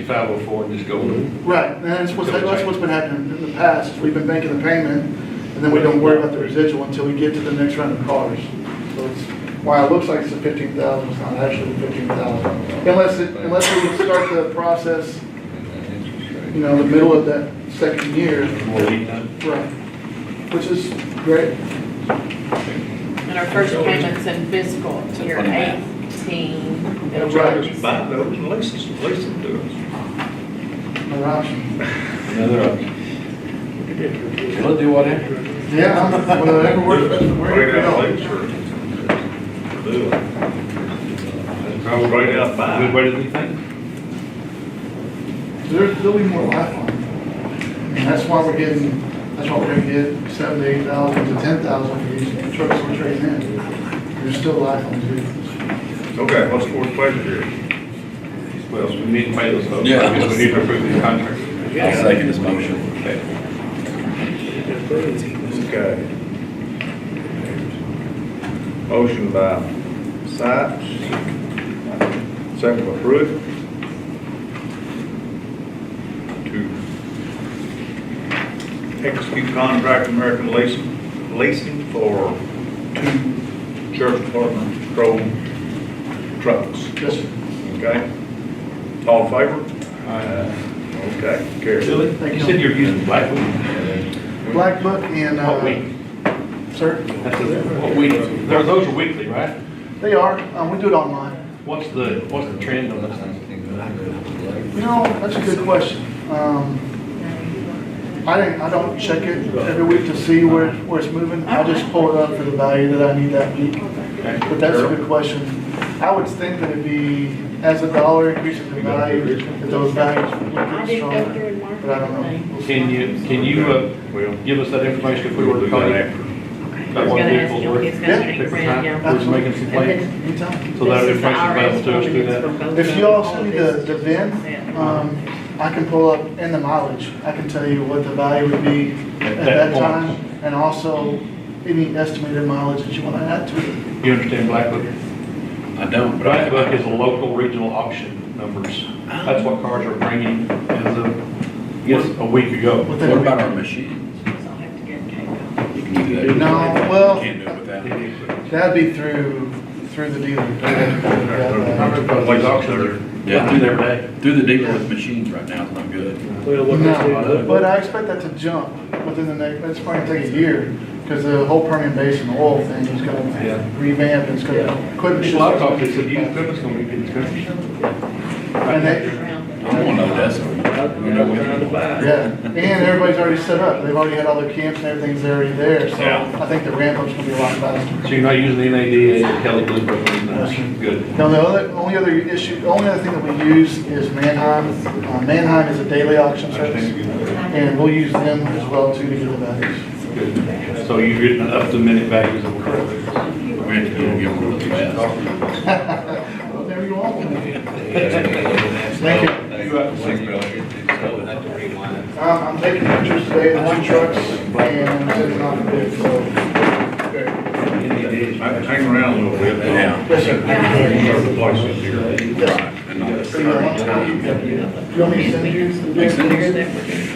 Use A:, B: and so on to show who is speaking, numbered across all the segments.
A: 6504 and just go with it.
B: Right, and that's what's, that's what's been happening in the past, is we've been making the payment, and then we don't worry about the residual until we get to the next round of cars. So it's, while it looks like it's the fifteen thousand, it's not actually fifteen thousand. Unless, it- unless we can start the process, you know, in the middle of that second year.
A: More lead time.
B: Right. Which is great.
C: And our first payment's in fiscal year
D: Funny math.
C: eighteen.
B: That's right.
C: It'll be-
E: Buy those and lease them, lease them to us.
B: No option.
A: Another option.
D: We'll do whatever.
B: Yeah, whatever works best for
E: Bring it out,
B: where
E: lease
B: you
E: or do it.
A: Probably
E: Right out by.
A: Good way to do things.
B: There's, there'll be more life on it. And that's why we're getting, that's why we're gonna get seven to eight thousand to ten thousand for these trucks we're trading in. There's still life on these vehicles.
E: Okay, what's the board's pleasure here?
A: Well, we need to pay those. folks.
D: Yeah.
A: I guess We need to approve these contracts.
D: I'll second this motion.
A: Okay.
E: Okay. Motion by Sipes, second by Pruitt. To execute contract with American leasing, leasing for two sheriff's department patrol trucks.
B: Yes, sir.
E: Okay? All in favor? Okay, carry.
A: Really? Uh, You said you're using Blackwood.
B: Black Book and,
A: What
B: uh,
A: week?
B: sir,
A: Oh, That's a- What week? Those those are weekly, right?
B: they are, um, we do it online.
A: What's the, what's the trend on this thing?
B: You know, that's a good question. Um, I didn't, I don't check it every week to see where, where it's moving. I just pull it up for the value that I need that week. But that's a good question. I would think that it'd be, as a dollar increases in value, that those values would get
C: I didn't go through
B: stronger.
C: and mark
B: But I don't know.
C: everything.
A: Can you, can you uh,
E: Well,
A: give us that information if we
E: we will
A: were to
E: do
A: call
E: that
A: you?
E: after.
C: I
A: About
C: was
A: what
C: gonna ask
A: vehicles
C: him,
A: were-
C: he's gonna
B: Yeah.
C: take
A: Pick the
C: grand,
A: time,
C: yeah.
A: we're just making some
C: And
A: plans.
C: then
B: Anytime.
A: So that
C: this is the
A: information available to us
C: IRS
A: through
C: ordinance
A: that.
C: for both
B: If
C: of
B: you all
C: them.
B: send me the, the VIN, um, I can pull up in the mileage. I can tell you what the value would be at that
A: point.
B: time. And also any estimated mileage that you want to add to it.
A: You understand Black Book?
D: I don't, but
A: Black Book
D: I,
A: is a local regional auction numbers. That's what cars are bringing as of, yes, a week ago.
B: within a
D: what about
B: week.
D: our machines?
C: I'll have to get Kate.
D: You can do that.
B: No, well-
D: Can't do it without.
B: That'd be through, through the dealer.
A: I remember those
E: Like
A: auctions are,
D: Yeah.
A: do their day.
D: Through the dealer with machines right now, it's not good.
B: No, but I expect that to jump within the next, that's probably gonna take a year, because the whole Permian Basin oil thing is
A: Yeah.
B: gonna revamp, it's gonna, equipment
A: A
B: should
A: lot
B: start
A: of
B: to
A: times they said,
B: get
A: you
B: back.
A: equipment's gonna be getting expensive.
B: And they,
D: I want to know that's.
B: yeah, and everybody's already set up, they've already had all their camps and everything's already there, so
E: Yeah.
B: I think the ramp up's gonna be a lot faster.
A: So you're not using the NADA, and Kelly Blue Book, that's good.
B: Now, the other, only other issue, the only other thing that we use is Manheim, Uh, Manheim is a daily auction service, and we'll use them as well too to get the values.
A: Good. So you're getting up to minute values of cars.
D: We have to go get one of those fast.
B: There you are. Thank you.
F: Thank you.
B: Um, I'm taking pictures today of the two trucks and sending off the bid, so.
E: Hang around a little bit.
D: Yeah.
B: Yes, sir.
E: Other places here.
D: And all that.
B: See you at lunchtime. You want me to send you the bid?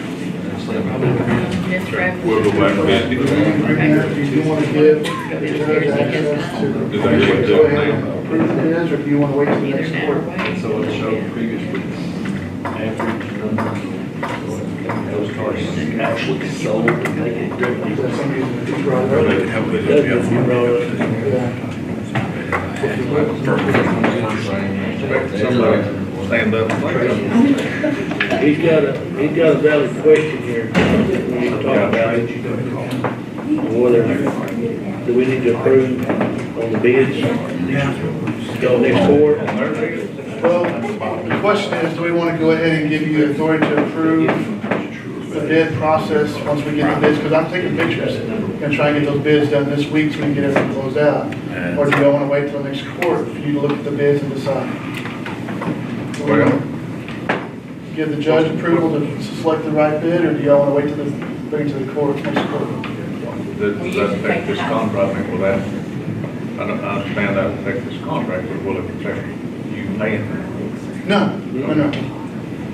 E: We'll go back to that.
B: uh, If you want to give, if you have access to.
E: Did they get
B: Go
E: that
B: ahead and Approve the bids, or do you want to wait till the
C: Either
B: next
C: that or
B: quarter?
C: wait.
A: So it'll show previous week's average number. Those cars actually sold.
B: Is that somebody who's gonna drive
D: But
B: over?
D: they have- they have to have one.
B: Yeah.
E: Somebody stand up.
G: He's got a, he's got a valid question here, we need to talk about it. Whether, do we need to approve on the bids? Go next board?
B: Well, the question is, do we want to go ahead and give you authority to approve the bid process once we get the bids? Because I'm taking pictures and trying to get those bids done this week so we can get everything closed out. Or do y'all want to wait till next quarter for you to look at the bids and decide?
E: Well-
B: Give the judge approval to select the right bid, or do y'all want to wait till the, bring it to the court next quarter?
E: Does that affect this contract, Nick, will that, I don't, I understand that affect this contract, but will it affect you paying?
B: No, no, no.